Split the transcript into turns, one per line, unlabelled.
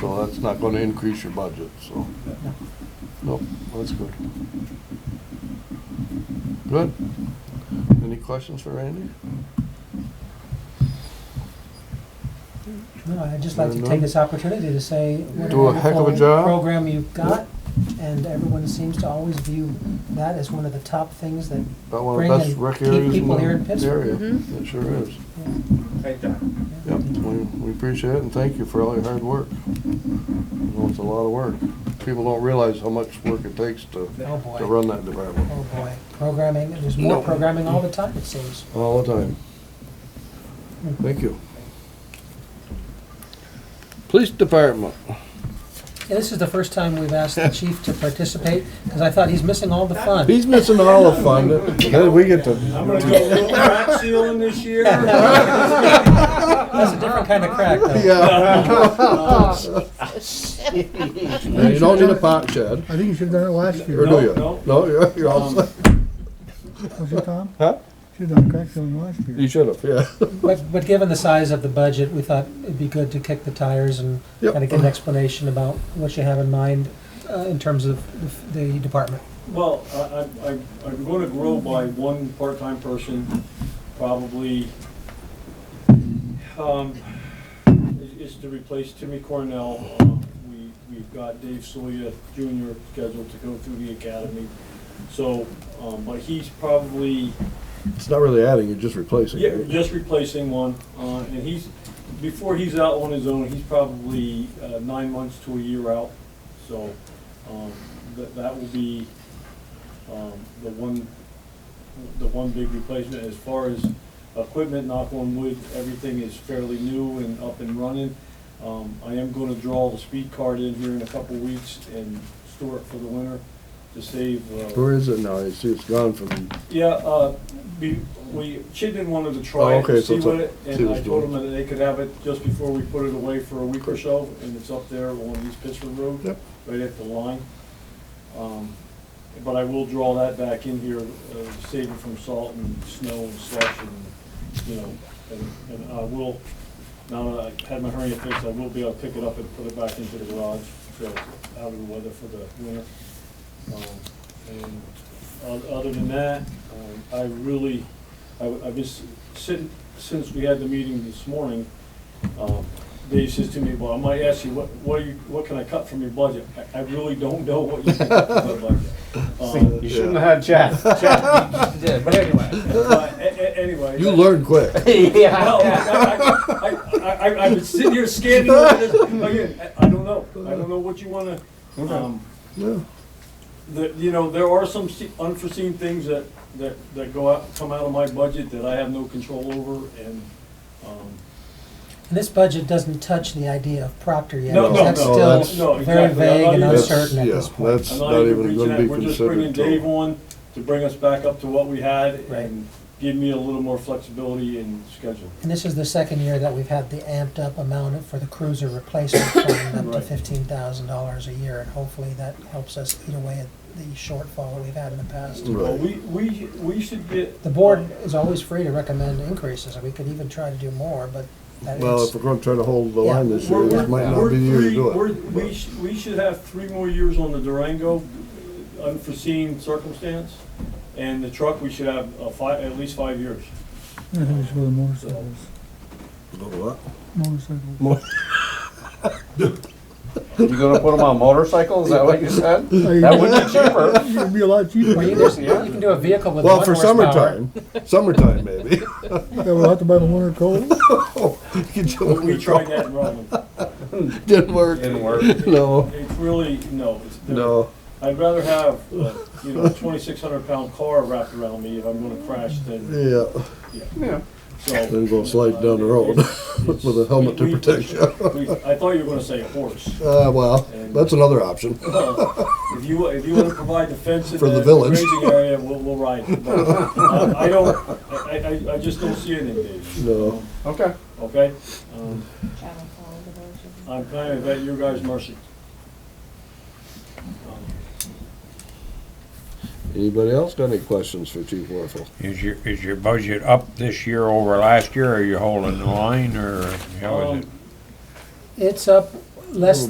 So that's not gonna increase your budget, so. Nope, that's good. Good. Any questions for Randy?
No, I'd just like to
Fair
take
enough.
this opportunity to say what a
Do a heck of a
wonderful
job.
program you've got, and everyone seems to always view that as one of the top things that,
About one of
Bring
the best
and
rec
keep
areas in
people here in
the
Pittsburgh.
area.
Mhm.
It sure is.
Thank you.
Yep, we, we appreciate it and thank you for all your hard work. I know It's a lot of work. People don't realize how much work it takes to,
oh
to
boy,
run that department.
oh boy. Programming, there's more programming all the time, it seems.
All the time. Thank you. Police Department.
Yeah, This is the first time we've asked the chief to participate, because I thought he's missing all the fun.
He's missing all the fun. Hey, We get to,
I'm gonna go little crack ceiling this year.
That's a different kind of crack, though.
yeah. You don't need a pot shed,
I think you should have done it last
or
year,
do you?
No,
No, you're, you're all
Um,
set.
was it, Tom?
Huh?
Should have done crack filling last year.
You should have, yeah.
But, but given the size of the budget, we thought it'd be good to kick the tires and
Yep.
kind of get an explanation about what you have in mind uh, in terms of the the department.
Well, I, I, I- I'm gonna grow by one part-time person, probably, um, is- is to replace Timmy Cornell. Uh, We, we've got Dave Soya Junior scheduled to go through the academy. So, um, but he's probably,
It's not really adding, you're just replacing.
Yeah, just replacing one, uh, and he's, before he's out on his own, he's probably uh, nine months to a year out. So, um, that, that will be, um, the one, the one big replacement. As far as equipment, knock on wood, everything is fairly new and up and running. Um, I am gonna draw the speed card in here in a couple weeks and store it for the winter to save, uh,
Where is it now? It's, it's gone from,
yeah, uh, we, we, she didn't want to try
Oh,
it,
okay,
and
so
see
it's a-
what it,
see
and
what's
I told
doing.
them that they could have it just before we put it away for a week or so, and it's up there on East Pittsford Road,
Yep.
right at the line. Um, But I will draw that back in here, uh, save it from salt and snow and slush and, you know, and, and I will, now that I had my hernia fixed, I will be able to pick it up and put it back into the garage, so out of the weather for the winter. Um, And o- other than that, um, I really, I- I've been, s- sin- since we had the meeting this morning, um, Dave says to me, well, I might ask you, what, what, do you- what can I cut from your budget? I I really don't know what you can cut from my budget. Um,
You shouldn't have had Jeff. Jeff did, but anyway.
but a- a- Anyway.
you
that-
learn quick.
No,
Oh,
I, I, I, I, I've been sitting here scanning, over this. again, I I don't know, I don't know what you wanna, um,
Yeah.
that, you know, there are some se- unforeseen things that, that, that go out, come out of my budget that I have no control over, and, um,
And this budget doesn't touch the idea of Proctor yet.
No,
no,
That's
no, that's-
no,
still very
exactly. I'm not
vague and
even-
That's-
uncertain at
yeah,
this point.
That's
I'm
not even
reaching
gonna
out.
be
We're just bringing
considered
Dave
till.
on to bring us back up to what we had,
Right.
and give me a little more flexibility in schedule.
And this is the second year that we've had the amped up amount for the cruiser replacement fund up to
Right.
fifteen thousand dollars a year. And hopefully that helps us eat away at the shortfall that we've had in the past.
Right.
Well, we, we, we should get.
The board is always free to recommend increases, and we could even try to do more, but that
Well,
is,
if we're gonna try to hold the line this year,
We're-
this might not
we're
be the year to
three-
do
we're-
it.
We should, we should have three more years on the Durango, unforeseen circumstance, and the truck, we should have a five, at least five years.
I think it's for the motorcycles. Motorcycles.
You gonna put them on motorcycles? Is that what you said? That would be cheaper.
It'd be a lot cheaper.
or you
Yeah,
just- you can do a vehicle with one
Well, for
horsepower.
summertime, summertime maybe. Oh,
We'll have to buy the winter coat.
You
We- We
don't-
tried that in Rutland.
Didn't work.
Didn't work.
No,
It's really, no. it's- they're-
no.
I'd rather have, uh, you know, a twenty-six hundred pound car wrapped around me if I'm gonna crash than,
Yeah,
Yeah.
so.
then go slide down the road
It's-
with a helmet to
we- we-
protect you.
we- I thought you were gonna say horse.
Uh, well, that's another option.
Well, If you, if you want to provide defense in
For the
that
village.
grazing area, we'll, we'll ride it. But, uh, I don't, I, I, I just don't see it in Dave.
No.
Okay.
Okay? Um, I'm kind of at your guys' mercy. Um,
Anybody else got any questions for Chief Warfel?
Is your, is your budget up this year over last year, or are you holding the line, or how is
um,
it?
It's up, less